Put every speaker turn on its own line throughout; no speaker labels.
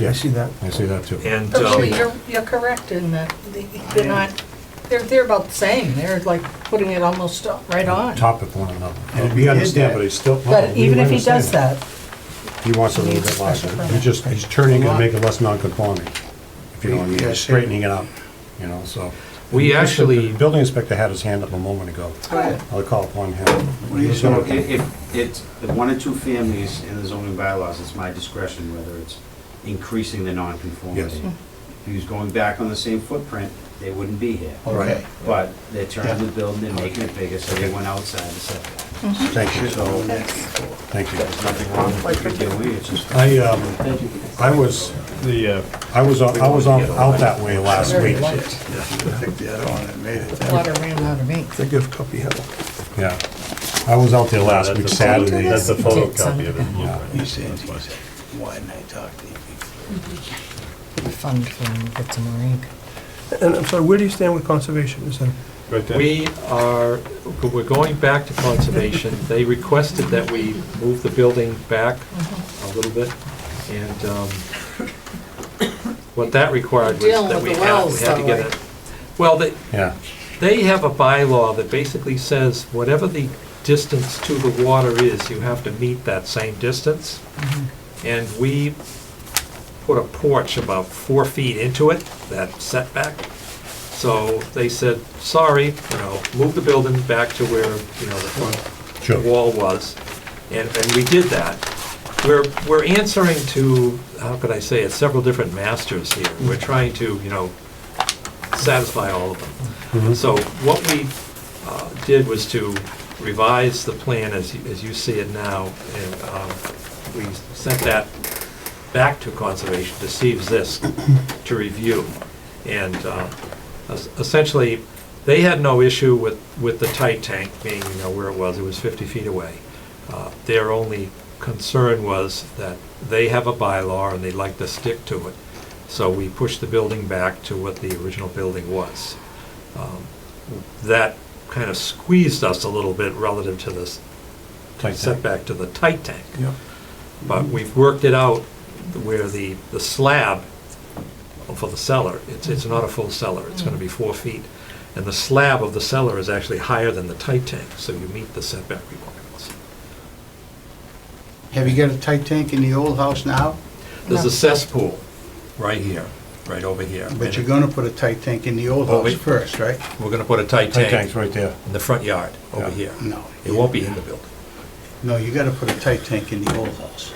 Yeah, I see that.
I see that too.
And,
Oh, so
um,
you're, you're correct in that, the- they're not, they're, they're about the same, they're like putting it almost right on.
Top of one another.
And if he
We
did
understand,
that-
but he's still. no,
But
we
even if he
understand
does that,
He wants a
he
little
needs
bit
a
larger.
special
He's
permit.
just, he's turning
Lot.
and making it less non-conforming, if you know what I mean,
Yeah,
he's
sure.
straightening it up, you know, so.
We
The-
actually-
the Building inspector had his hand up a moment ago.
Right.
I'll call upon him.
do you
He's
say?
gonna-
So if, if it's the one or two families in the zoning bylaws, it's my discretion whether it's increasing the
Yes.
nonconformity. If he was going back on the same footprint, they wouldn't be here.
Okay.
But they're turning
Yeah.
the building, they're making it bigger, so they went outside the setback.
Thank you,
So
thank you.
there's nothing wrong with what you're doing, it's just.
I, um, I was,
The, uh,
I was, on- I was on- out that way last
very
week.
light,
Take the other one and made it.
water ran out of me.
Think of copy of,
Yeah. I was out there last
that's
week,
a-
Saturday.
That's a photocopy of the
Yeah.
blueprint.
he says,
That's
he
why.
says, why didn't I talk to you? before?"
Fund from get some ink.
And I'm sorry, where do you stand with conservation? Is that,
Right there.
we are, we're going back to conservation. They requested that we move the building back a
Mm-hmm.
little bit, and um, what that required was
Dealing
that
with
we
the
had, we
wells,
had to
though,
get
right?
a, well, they,
Yeah,
they have a bylaw that basically says whatever the distance to the water is, you have to meet that same distance. And we put a porch about four feet into it, that setback. So they said, sorry, you know, move the building back to where, you know, the front
sure.
wall was, and, and we did that. We're, we're answering to, how could I say it, several different masters here. We're trying to, you know, satisfy all of them. So what we uh, did was to revise the plan as, you- as you see it now, and um, we sent that back to Conservation to see if this, to review. And uh, es- essentially, they had no issue with, with the tight tank being, you know, where it was, it was 50 feet away. Uh, Their only concern was that they have a bylaw and they'd like to stick to it. So we pushed the building back to what the original building was. Um, That kind of squeezed us a little bit relative to this
Tight tank.
setback to the tight tank.
Yeah.
But we've worked it out where the, the slab for the cellar, it's, it's not a full cellar, it's gonna be four feet. And the slab of the cellar is actually higher than the tight tank, so you meet the setback requirements.
Have you got a tight tank in the old house now?
There's
No.
a cesspool right here, right over here.
But you're gonna put a tight tank in the old
Well, we-
house first, right?
We're gonna put a tight
Tight tank's
tank
right there.
in the front yard, over
Yeah.
here.
No.
It won't be in the building.
No, you gotta put a tight tank in the old house.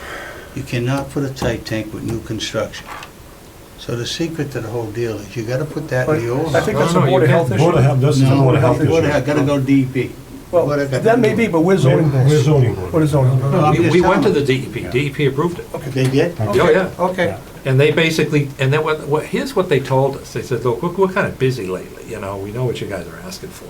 You cannot put a tight tank with new construction. So the secret to the whole deal is you gotta put that in the old house.
I think that's
No,
a
no, you
Board of
can't.
Health issue.
Board of Health, this is a
No,
Board of Health
Board of Health,
issue.
gotta go E DEP.
Well,
Board of Health.
that may be, but we're zoning board.
We're zoning board.
We're zoning board.
No, I'm
We,
just
we went to
telling
the E
them.
DEP, DEP approved it.
They did?
Oh, yeah.
Okay.
And they basically, and then what, what, here's what they told us. They said, look, we're, we're kind of busy lately, you know, we know what you guys are asking for.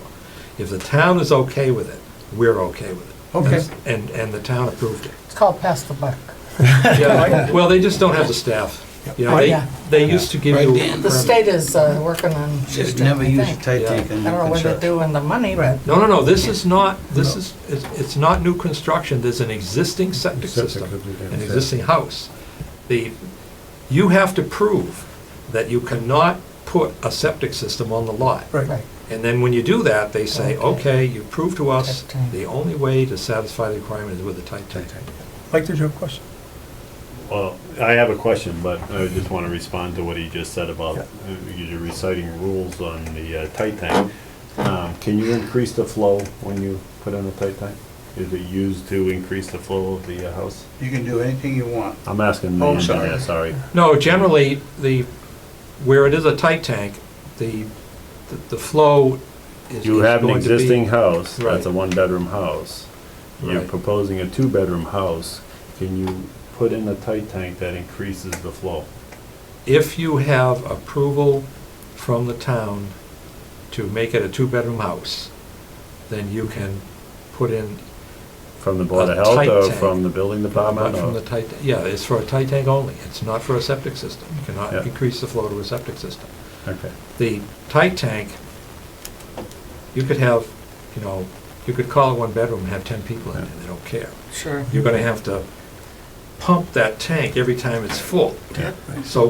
If the town is okay with it, we're okay with it.
Okay.
And, and the town approved it.
It's called pass the buck.
Yeah, Well, they just don't have the staff. You know, they,
Yeah.
they used to give you.
Right, Dan.
a
The
permit.
state is uh, working on, I
Just never use a
think. I
tight
Yeah.
tank
don't
in new
know what they're
construction.
doing the money, but
No, no, no, this is not, this is, it's, it's not new construction, there's an existing septic
Septic
system,
could be there.
an existing house. The, you have to prove that you cannot put a septic system on the lot.
Right.
Right.
And then when you do that, they say, okay, you prove to us,
Tight tank.
the only way to satisfy the requirement is with a tight tank.
Mike, did you have a question?
Well, I have a question, but I just want to respond to what he just said about,
Yeah.
uh, you're reciting rules on the uh, tight tank. Um, Can you increase the flow when you put in a tight tank? Is it used to increase the flow of the uh, house?
You can do anything you want.
I'm asking the
Oh, I'm sorry.
engineer, sorry.
No, generally, the, where it is a tight tank, the, the- the flow is.
You
is
have an
going to be-
existing house, that's a
Right.
one-bedroom house. You're
Right.
proposing a two-bedroom house. Can you put in a tight tank that increases the flow?
if you have approval from the town to make it a two-bedroom house, then you can put in,
From the Board
A
of Health
tight
or
tank.
from the building
not
department? Oh,
from
or-
the tight, yeah, it's for a tight tank only. It's not for a septic system. You
Yeah.
cannot increase the flow to a septic system.
Okay.
The tight tank, you could have, you know, you could call it one bedroom and have 10 people in it, they don't care.
Sure.
You're gonna have to pump that tank every time it's full. So